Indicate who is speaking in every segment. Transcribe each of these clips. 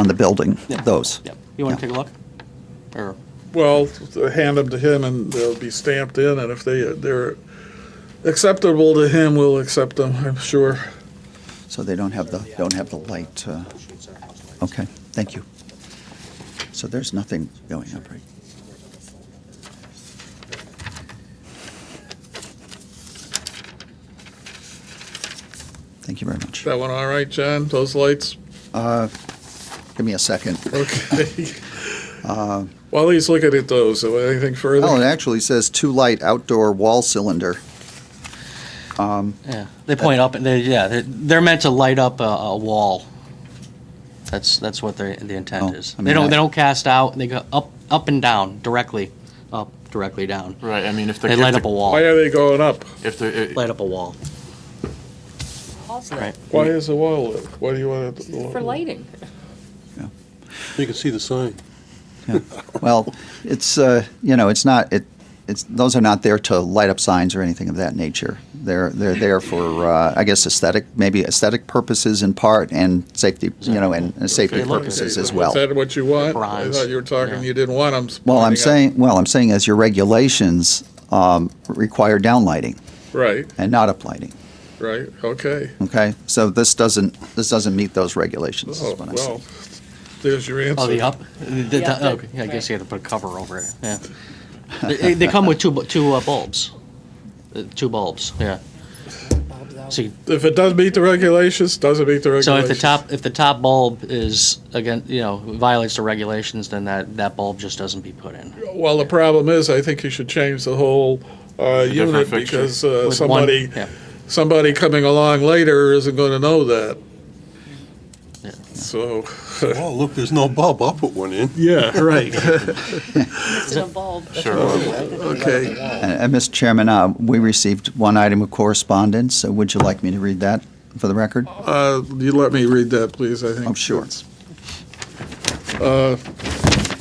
Speaker 1: on the building,
Speaker 2: Yeah.
Speaker 1: those.
Speaker 2: Yep. You want
Speaker 1: Yeah.
Speaker 2: to take a look? Or,
Speaker 3: Well, hand them to him and they'll be stamped in, and if they, they're acceptable to him, we'll accept them, I'm sure.
Speaker 1: So they don't have the, don't have the light, uh, okay, thank you. So there's nothing going up, right? Thank you very much.
Speaker 3: That one all right, John? Those lights?
Speaker 1: Give me a second.
Speaker 3: Okay. While he's looking at those, anything
Speaker 1: Uh, Oh, it
Speaker 3: further?
Speaker 1: actually says two light outdoor wall cylinder.
Speaker 2: yeah, they point up and they, yeah, they're, they're meant to light up a, a wall. That's, that's what their, the
Speaker 1: Oh,
Speaker 2: intent is.
Speaker 1: I
Speaker 2: They
Speaker 1: mean, I-
Speaker 2: don't, they don't cast out, they go up, up and down, directly, up, directly down.
Speaker 4: Right, I mean, if the.
Speaker 2: They
Speaker 4: if
Speaker 2: light
Speaker 4: the-
Speaker 2: up a
Speaker 3: Why
Speaker 2: wall,
Speaker 3: are they going up?
Speaker 4: If the,
Speaker 2: light up a wall. Right.
Speaker 3: Why is the wall lit? What do you want it?
Speaker 5: For lighting.
Speaker 6: You can see the sign.
Speaker 1: Well, it's, uh, you know, it's not, it, it's, those are not there to light up signs or anything of that nature. They're, they're there for, uh, I guess, aesthetic, maybe aesthetic purposes in part and safety, you know, and and safety
Speaker 2: They look-
Speaker 1: purposes
Speaker 3: Is
Speaker 1: as well.
Speaker 3: that what you want? I
Speaker 2: Bronze.
Speaker 3: thought you were talking,
Speaker 2: Yeah.
Speaker 3: you didn't want them.
Speaker 1: Well, I'm saying, well, I'm saying as your regulations, um, require downlighting
Speaker 3: Right,
Speaker 1: and not uplighting,
Speaker 3: right, okay.
Speaker 1: okay? So this doesn't, this doesn't meet those regulations,
Speaker 3: Oh,
Speaker 1: is what I'm saying.
Speaker 3: well, there's your answer.
Speaker 2: Oh, the up? The- the-
Speaker 5: Yeah,
Speaker 2: oh,
Speaker 5: the-
Speaker 2: yeah, I guess
Speaker 5: right.
Speaker 2: you have to put a cover over it, yeah. They, they come with two, bu- two uh, bulbs, Uh, two bulbs, yeah. So you
Speaker 3: If it doesn't meet the regulations, doesn't meet the regulations.
Speaker 2: So if the top, if the top bulb is, again, you know, violates the regulations, then that, that bulb just doesn't be put in.
Speaker 3: Well, the problem is, I think you should change the whole uh,
Speaker 4: different
Speaker 3: unit
Speaker 4: fixture.
Speaker 3: because uh,
Speaker 2: With one-
Speaker 3: somebody,
Speaker 2: yeah.
Speaker 3: somebody coming along later isn't going to know that.
Speaker 2: Yeah.
Speaker 3: So,
Speaker 6: Oh, look, there's no bulb. I'll put one in.
Speaker 3: yeah, right.
Speaker 5: It's an bulb.
Speaker 4: Sure.
Speaker 3: Okay.
Speaker 1: And, and Mr. Chairman, uh, we received one item of correspondence. So Would you like me to read that for the record?
Speaker 3: Uh, You let me read that, please, I think.
Speaker 1: Oh, sure.
Speaker 3: it's- Uh,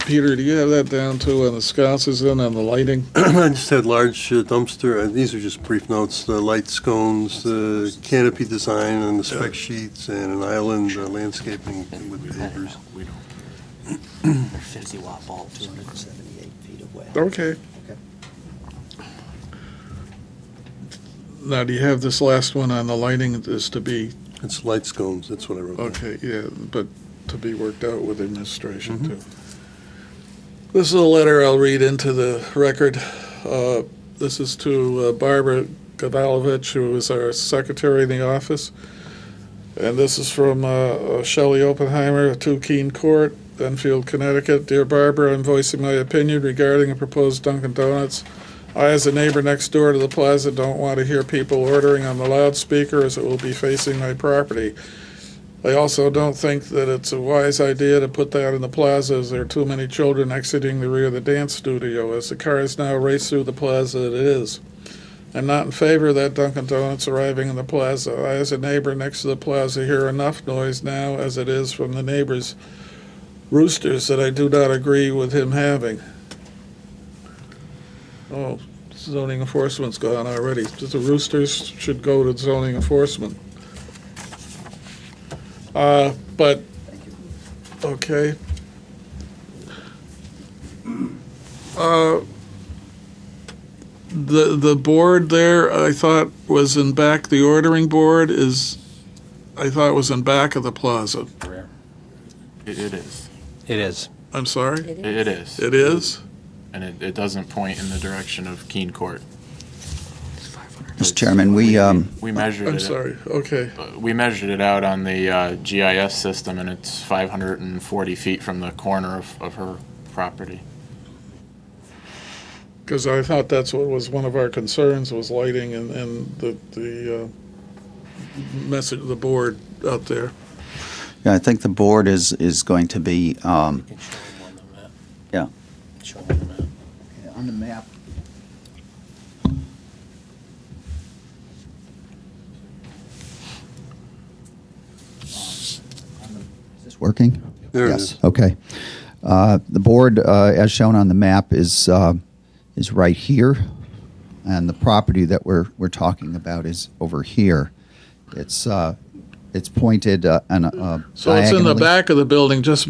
Speaker 3: Peter, do you have that down too, on the sconces and on the lighting?
Speaker 6: I just had large uh, dumpster, uh, these are just brief notes, the light scones, the canopy design and the spec sheets and an island uh, landscaping with papers.
Speaker 2: They're Fifty watt bulb, two hundred and seventy.
Speaker 3: Okay. Now, do you have this last one on the lighting is to be
Speaker 6: It's light scones, that's what I wrote. down.
Speaker 3: Okay, yeah, but to be worked out with administration, too. This is a letter I'll read into the record. Uh, This is to uh, Barbara Gavalovich, who is our secretary in the office. And this is from uh, Shelley Oppenheimer, 2 Keene Court, Enfield, Connecticut. Dear Barbara, I'm voicing my opinion regarding the proposed Dunkin' Donuts. I, as a neighbor next door to the plaza, don't want to hear people ordering on the loudspeaker as it will be facing my property. I also don't think that it's a wise idea to put that in the plaza as there are too many children exiting the rear of the dance studio as the cars now race through the plaza it is. I'm not in favor of that Dunkin' Donuts arriving in the plaza. I, as a neighbor next to the plaza, hear enough noise now as it is from the neighbor's roosters that I do not agree with him having. Oh, zoning enforcement's gone already. The roosters should go to zoning enforcement. Uh, But, okay. Uh, The, the board there, I thought was in back, the ordering board is, I thought was in back of the plaza.
Speaker 4: it it is,
Speaker 7: It is.
Speaker 3: I'm sorry?
Speaker 4: It- it is,
Speaker 3: It is?
Speaker 4: and it, it doesn't point in the direction of Keene Court.
Speaker 1: Mr. Chairman, we, um,
Speaker 4: We measured it.
Speaker 3: I'm sorry, okay.
Speaker 4: uh, We measured it out on the uh, GIS system, and it's 540 feet from the corner of, of her property.
Speaker 3: Because I thought that's what was one of our concerns, was lighting and, and the, the uh, message, the board out there.
Speaker 1: yeah, I think the board is, is going to be, um, yeah. On the map. Is this working?
Speaker 6: There it
Speaker 1: Yes,
Speaker 6: is.
Speaker 1: okay. Uh, The board, uh, as shown on the map, is, uh, is right here, and the property that we're, we're talking about is over here. It's, uh, it's pointed uh, and uh,
Speaker 3: So it's in the
Speaker 1: diagonally.
Speaker 3: back of the building, just